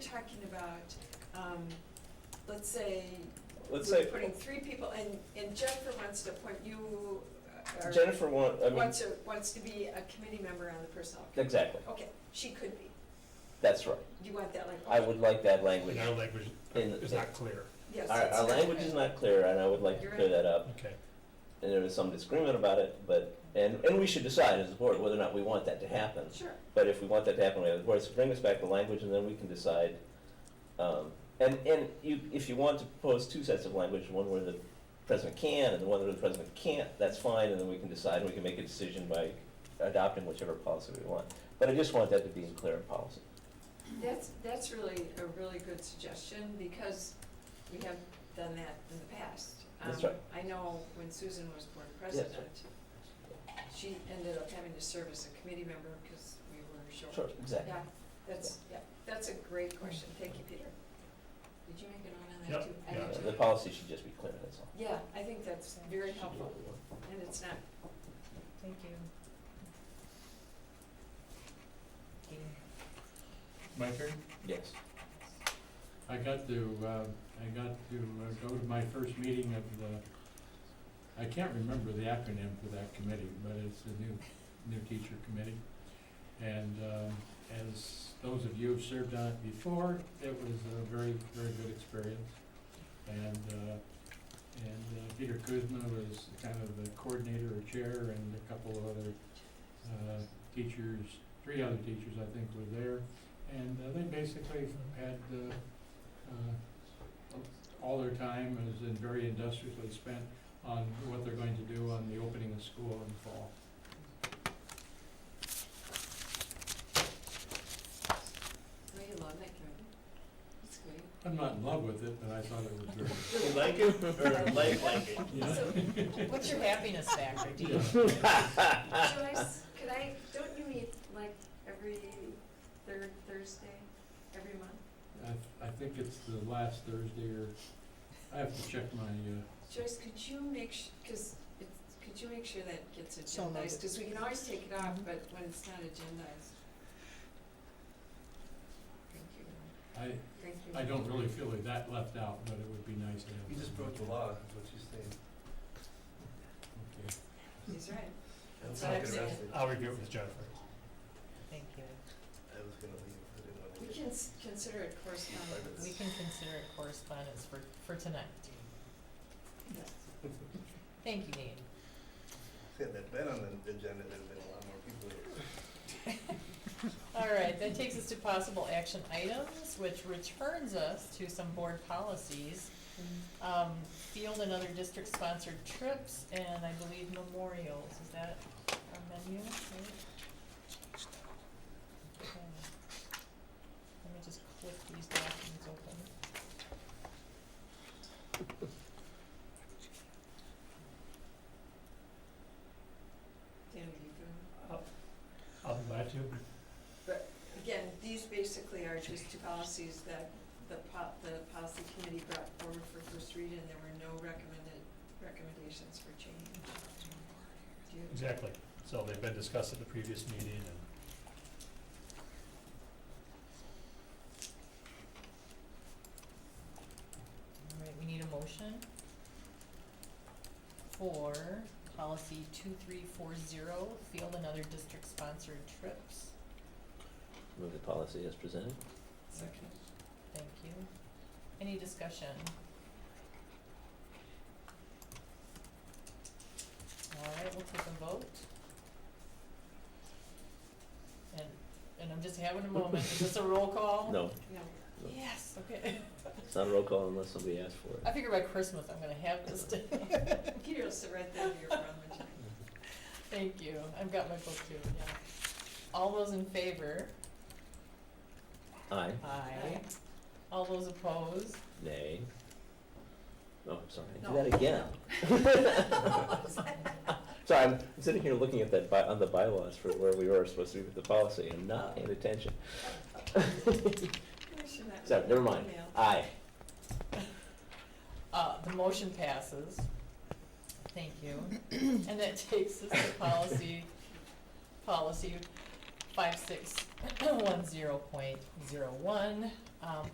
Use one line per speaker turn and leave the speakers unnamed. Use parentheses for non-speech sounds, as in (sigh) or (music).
talking about, um, let's say,
Let's
we're
say,
putting three people, and, and Jennifer wants to appoint you, uh, or
Jennifer want, I mean,
wants to, wants to be a committee member on the personnel. committee.
exactly,
Okay, she could be.
that's right.
Do you want that language?
I would like that
And
language.
our language
In-
is not clear,
Yes.
Our,
it's
our
not-
language is not clear, and I would like to
You're
clear
right.
that up.
okay.
And there was some disagreement about it, but, and, and we should decide as a board whether or not we want that to happen.
Sure,
But if we want that to happen, we have the board, so bring us back the language, and then we can decide. um, And, and you, if you want to propose two sets of language, one where the president can and the one where the president can't, that's fine, and then we can decide, and we can make a decision by adopting whichever policy we want. But I just want that to be in clear in policy.
that's, that's really a really good suggestion, because we have done that in the past.
That's
Um,
right.
I know when Susan was board president, she ended up having to serve as a committee member because we were short.
Sure, exactly.
Yeah, that's, yeah, that's a great question, thank you, Peter. Did you make a note on that
Yep,
too? I
yeah.
did
Uh,
too.
The policy should just be clear, that's all.
Yeah, I think that's very helpful, and it's not,
Thank you.
My turn?
Yes.
I got to, uh, I got to uh, go to my first meeting of the, I can't remember the acronym for that committee, but it's the new, new teacher committee. And um, as those of you who've served on it before, it was a very, very good experience. And, uh, and uh, Peter Kuzma was kind of the coordinator or chair, and a couple of other uh, teachers, three other teachers, I think, were there. And uh, they basically had uh, uh, all their time is in very industriously spent on what they're going to do on the opening of school in the fall.
no, you love that committee. It's great.
I'm not in love with it, but I thought it was very.
You like it or like like it? (laughs)
What's your happiness factor? Do you-
Yeah.
Joyce, could I, don't you meet like every third Thursday, every month?
I, I think it's the last Thursday or, I have to check my, uh,
Joyce, could you make, su- cause it's, could you make sure that gets
So noted.
agendized, cause we can always take it off, but when it's not agendized. Thank you,
I,
thank you.
I don't really feel like that left out, but it would be nice to have.
You just broke the law, is what she's saying.
Okay.
He's right.
That's
what
not
I'm
gonna-
saying.
I'll review it with Jennifer.
Thank you.
I was gonna leave, I didn't wanna
We
leave.
can s- consider it correspondence.
We can consider it correspondence for, for tonight.
Yes.
Thank you, Dean.
If it had been on the agenda, there'd have been a lot more people here.
All right, that takes us to possible action items, which returns us to some board policies. Um, field and other district-sponsored trips, and I believe memorials, is that our menu? Right? Okay. Let me just click these documents open.
Dan, you can-
I'll be glad to.
But again, these basically are just two policies that the po- the policy committee brought forward for first read and there were no recommended recommendations for change. Do you-
Exactly, so they've been discussed at the previous meeting and.
All right, we need a motion for policy two three four zero, field and other district-sponsored trips.
Move the policy as presented.
Second.
Thank you. Any discussion? All right, we'll take a vote. And, and I'm just having a moment, is this a roll call?
No,
No.
Yes, okay. (laughs)
it's not a roll call unless somebody asks for it.
I figure by Christmas I'm gonna have this down.
Peter will sit right there in your front window.
Thank you, I've got my book too, yeah. All those in favor?
Aye.
Aye. All those opposed?
Nay. Oh, I'm sorry.
No.
Do that again.
Uh,
Sorry, I'm sitting here looking at that by, on the bylaws for where we were supposed to be with the policy and not paying attention.
I should not-
So, never mind.
Email.
Aye.
Uh, the motion passes. Thank you. And that takes us to policy, policy five six one zero point zero one, um,